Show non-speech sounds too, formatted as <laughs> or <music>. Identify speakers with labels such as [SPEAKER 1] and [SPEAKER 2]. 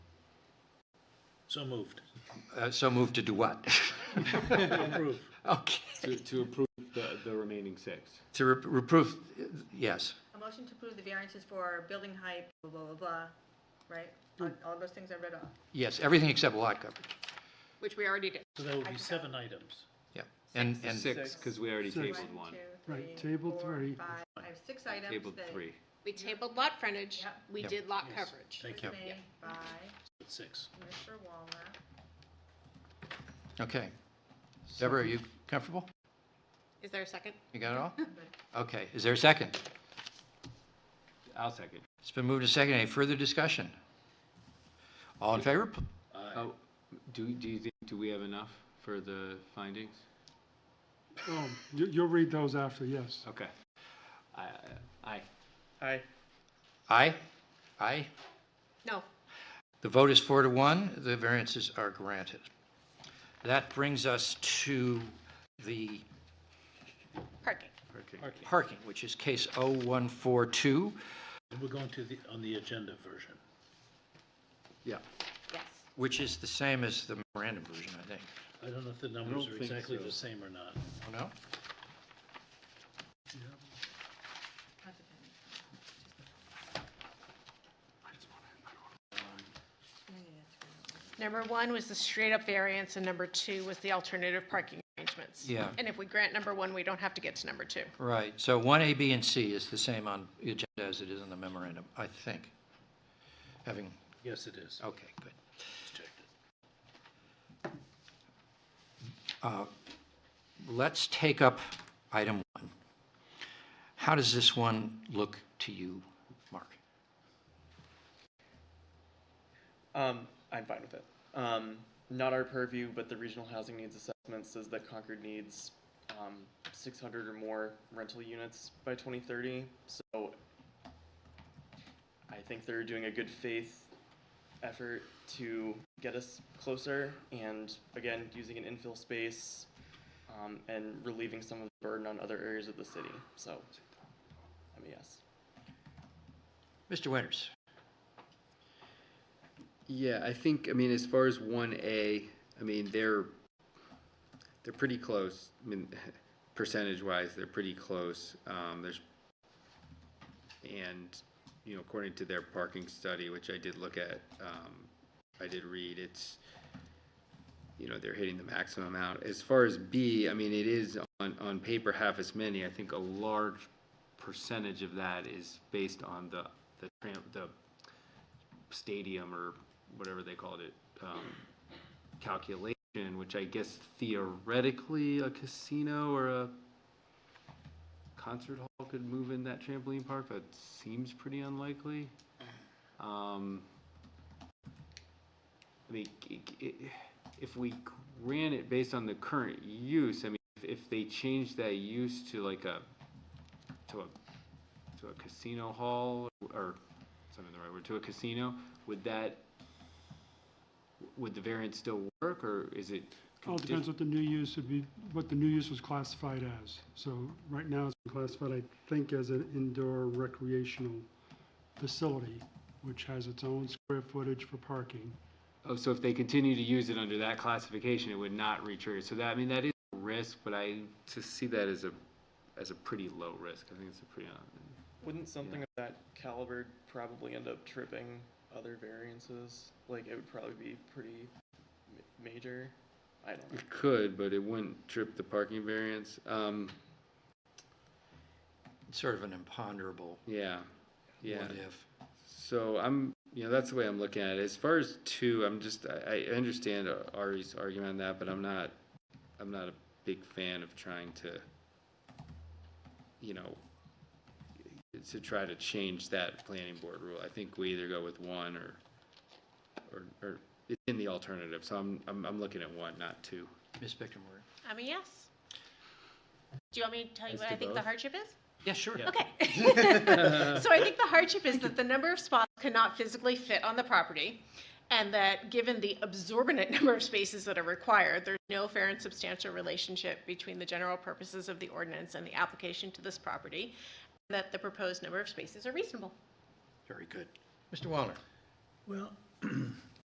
[SPEAKER 1] So moved.
[SPEAKER 2] Uh, So moved to do what? <laughs>
[SPEAKER 1] Approve.
[SPEAKER 2] Okay,
[SPEAKER 3] To, to approve the, the remaining six.
[SPEAKER 2] to re- reprove, yes,
[SPEAKER 4] A motion to approve the variances for building height, blah, blah, blah, blah, right? On- All those things I read off.
[SPEAKER 2] yes, everything except lot coverage,
[SPEAKER 5] Which we already did.
[SPEAKER 1] So that would be seven items.
[SPEAKER 2] yeah. And, and.
[SPEAKER 3] Six, because we already
[SPEAKER 6] Six.
[SPEAKER 3] tabled one,
[SPEAKER 4] Two,
[SPEAKER 6] Right,
[SPEAKER 4] three,
[SPEAKER 6] table
[SPEAKER 4] four,
[SPEAKER 6] three.
[SPEAKER 4] five. I have six items.
[SPEAKER 3] tabled
[SPEAKER 4] that-
[SPEAKER 3] three.
[SPEAKER 5] We tabled lot frontage,
[SPEAKER 4] Yep.
[SPEAKER 5] we
[SPEAKER 2] Yep.
[SPEAKER 5] did lot
[SPEAKER 1] Yes.
[SPEAKER 5] coverage.
[SPEAKER 1] Thank you.
[SPEAKER 4] Made
[SPEAKER 5] Yep.
[SPEAKER 4] By
[SPEAKER 1] Six.
[SPEAKER 4] Mr. Walner.
[SPEAKER 2] Okay. Deborah, are you comfortable?
[SPEAKER 5] Is there a second?
[SPEAKER 2] You got it all? Okay, is there a second?
[SPEAKER 3] I'll second.
[SPEAKER 2] It's been moved to second. Any further discussion? All in favor? P-
[SPEAKER 1] Aye.
[SPEAKER 3] Oh, do, do you think, do we have enough for the findings?
[SPEAKER 6] Um, you, you'll read those after, yes.
[SPEAKER 3] Okay. I, I,
[SPEAKER 2] Aye? Aye?
[SPEAKER 5] No.
[SPEAKER 2] The vote is four to one. The variances are granted. That brings us to the
[SPEAKER 5] Parking.
[SPEAKER 3] okay.
[SPEAKER 2] parking, which is case 0142.
[SPEAKER 1] And we're going to the, on the agenda version.
[SPEAKER 2] Yeah.
[SPEAKER 5] Yes.
[SPEAKER 2] Which is the same as the memorandum version, I think.
[SPEAKER 1] I don't know if the numbers
[SPEAKER 3] don't
[SPEAKER 1] are
[SPEAKER 3] think
[SPEAKER 1] exactly
[SPEAKER 3] so.
[SPEAKER 1] the same or not.
[SPEAKER 2] Oh, no?
[SPEAKER 5] Number one was the straight-up variance, and number two was the alternative parking arrangements.
[SPEAKER 2] Yeah.
[SPEAKER 5] And if we grant number one, we don't have to get to number two.
[SPEAKER 2] Right. So 1A, B, and C is the same on the agenda as it is on the memorandum, I think. Having,
[SPEAKER 1] Yes, it
[SPEAKER 3] Oh.
[SPEAKER 1] is.
[SPEAKER 2] okay, good.
[SPEAKER 1] Let's check it.
[SPEAKER 2] Uh, Let's take up item one. How does this one look to you, Mark?
[SPEAKER 7] Um, I'm fine with it. Um, not our purview, but the regional housing needs assessment says that Concord needs um, 600 or more rental units by 2030. So I think they're doing a good faith effort to get us closer and again using an infill space um, and relieving some of the burden on other areas of the city. So I'm a yes.
[SPEAKER 2] Mr. Winters?
[SPEAKER 8] Yeah, I think, I mean, as far as one A, I mean, they're, they're pretty close. I mean, <laughs> percentage wise, they're pretty close. Um, there's, and, you know, according to their parking study, which I did look at, um, I did read, it's, you know, they're hitting the maximum amount. As far as B, I mean, it is on, on paper half as many. I think a large
[SPEAKER 3] Percentage of that is based on the, the tram, the stadium or whatever they called it, um, calculation, which I guess theoretically a casino or a concert hall could move in that trampoline park, but seems pretty unlikely. Um, I mean, i- i- if we ran it based on the current use, I mean, if- if they changed that use to like a, to a, to a casino hall, or, something the right word, to a casino, would that, would the variance still work, or is it?
[SPEAKER 6] All depends what the new use would be, what the new use was classified as. So right now it's been classified, I think, as an indoor recreational facility, which has its own square footage for parking.
[SPEAKER 3] Oh, so if they continue to use it under that classification, it would not retrigger. So that, I mean, that is a risk, but I just see that as a, as a pretty low risk. I think it's a pretty, uh,
[SPEAKER 7] Wouldn't something of that caliber probably end up tripping other variances? Like it would probably be pretty ma- major. I don't know.
[SPEAKER 8] It could, but it wouldn't trip the parking variance. Um,
[SPEAKER 2] It's sort of an imponderable
[SPEAKER 8] yeah, yeah.
[SPEAKER 2] what if.
[SPEAKER 8] So I'm, you know, that's the way I'm looking at it. As far as two, I'm just, I, I understand Ari's argument on that, but I'm not, I'm not a big fan of trying to, you know, to try to change that planning board rule. I think we either go with one or, or, or it's in the alternative. So I'm, I'm, I'm looking at one, not two.
[SPEAKER 2] Ms. Bickmore?
[SPEAKER 5] I'm a yes. Do you want me to tell you
[SPEAKER 8] As
[SPEAKER 5] what
[SPEAKER 8] to
[SPEAKER 5] I think the
[SPEAKER 8] both?
[SPEAKER 5] hardship is?
[SPEAKER 2] Yeah, sure.
[SPEAKER 5] Okay. So I think the hardship is that the number of spots cannot physically fit on the property, and that given the absorbent <laughs> number of spaces that are required, there's no fair and substantial relationship between the general purposes of the ordinance and the application to this property, and that the proposed number of spaces are reasonable.
[SPEAKER 2] Very good. Mr. Wallner?
[SPEAKER 1] Well,